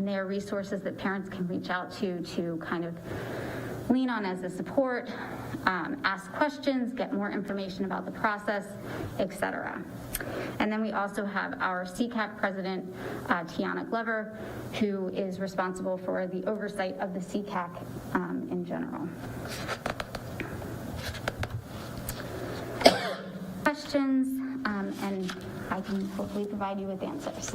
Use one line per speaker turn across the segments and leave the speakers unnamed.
there are resources that parents can reach out to to kind of lean on as a support, um, ask questions, get more information about the process, et cetera. And then we also have our CCAP president, uh, Tiana Glover, who is responsible for the oversight of the CCAC um, in general. Questions, um, and I can hopefully provide you with answers.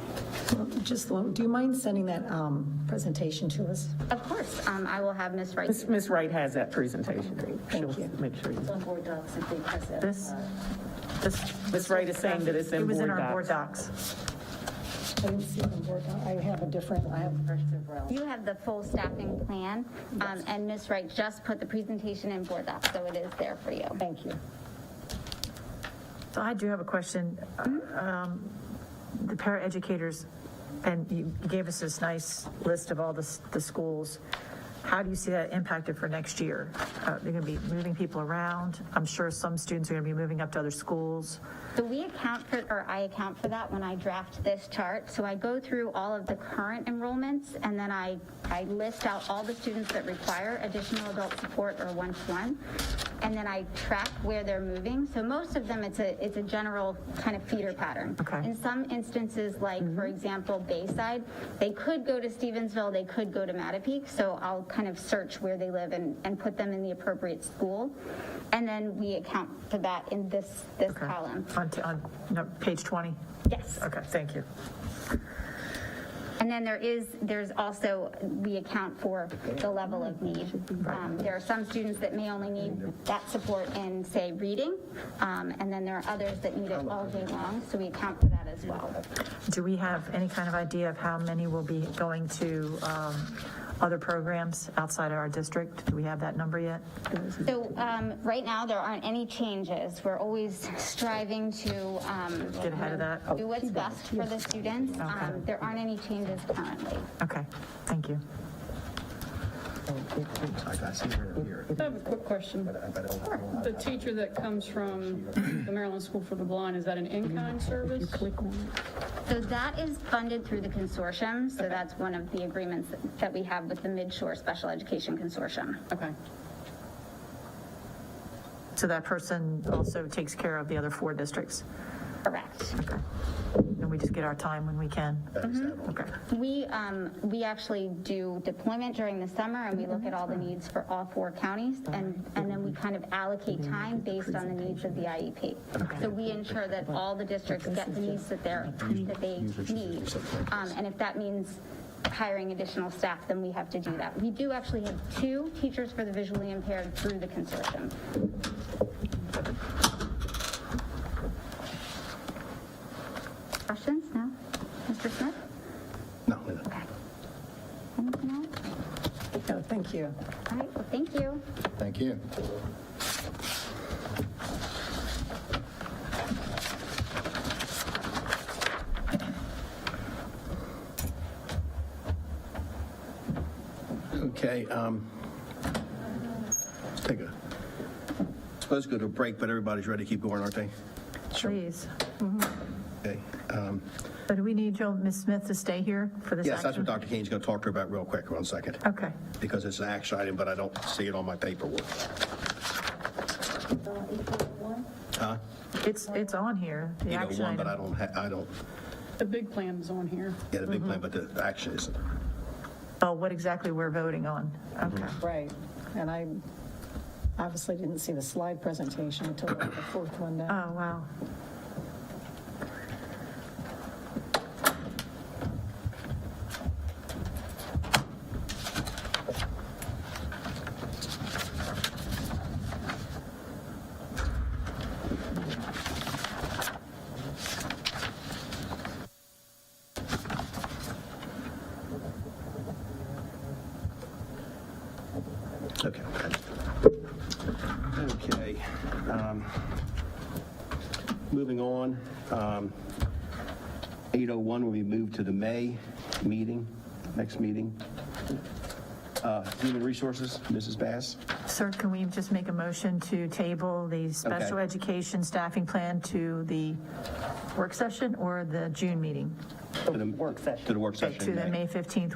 Just, lo- do you mind sending that um, presentation to us?
Of course, um, I will have Ms. Wright.
Ms. Ms. Wright has that presentation. She'll
Thank you.
make sure. you-
on board docs if they press it.
This,
This-
Ms. Wright is saying that it's in
It was in
board
our board
docs.
docs.
I didn't see it on board doc. I have a different, I have,
You have the full staffing plan, um, and Ms. Wright just put the presentation in board docs, so it is there for you.
thank you.
So I do have a question. Um, The paraeducators, and you gave us this nice list of all the, s- the schools. How do you see that impacted for next year? Uh, They're going to be moving people around. I'm sure some students are going to be moving up to other schools.
So we account for, or I account for that when I draft this chart. So I go through all of the current enrollments, and then I, I list out all the students that require additional adult support or one-to-one. And then I track where they're moving. So most of them, it's a, it's a general kind of feeder pattern.
Okay. Mm-hmm.
In some instances, like, for example, Bayside, they could go to Stevensville, they could go to Mattapique, so I'll kind of search where they live and, and put them in the appropriate school. And then we account for that in this, this
Okay.
column.
On, t- on, no, page 20?
Yes.
Okay, thank you.
And then there is, there's also, we account for the level of need. Um, There are some students that may only need that support in, say, reading, um, and then there are others that need it all day long, so we account for that as well.
Do we have any kind of idea of how many will be going to um, other programs outside of our district? Do we have that number yet?
So um, right now, there aren't any changes. We're always striving to. um,
Get ahead of that.
Do what's best for the students. Um, There aren't any changes currently.
Okay, thank you.
I have a quick question. The teacher that comes from the Maryland School for the Blind, is that an in-kind service?
So that is funded through the consortium, so that's one of the agreements that we have with the Midshore Special Education Consortium.
Okay.
So that person also takes care of the other four districts?
Correct.
Okay. And we just get our time when we can? Okay,
We, um, we actually do deployment during the summer, and we look at all the needs for all four counties, and, and then we kind of allocate time based on the needs of the IEP. So we ensure that all the districts get the needs that they're, that they need. Um, and if that means hiring additional staff, then we have to do that. We do actually have two teachers for the visually impaired through the consortium. Questions No, Mr. Smith?
No, no, no.
Anything else?
No, thank you.
All right, well, thank you.
thank you. Okay, um, let's take a, supposed to go to a break, but everybody's ready to keep going, aren't they?
please.
Okay. um,
So do we need Joe, Ms. Smith to stay here for this action?
Yes, that's what Dr. Kane's going to talk to her about real quick, one second.
Okay,
because it's an action item, but I don't see it on my paperwork. Huh?
it's, it's on here, the
You know,
action
one, but I
item.
don't, ha- I don't
The big plan is on here.
get a
Mm-hmm.
big plan, but the action isn't.
Oh, what exactly we're voting on? Okay,
Mm-hmm.
Right, and I obviously didn't see the slide presentation until the fourth one
oh,
down.
wow.
Okay. Okay. um, Moving on, um, 801 will be moved to the May meeting, next meeting. Uh, Human Resources, Mrs. Bass?
Sir, can we just make a motion to table the special
Okay.
education staffing plan to the work session or the June meeting?
To the work session. To the work session.
To
in
the May 15th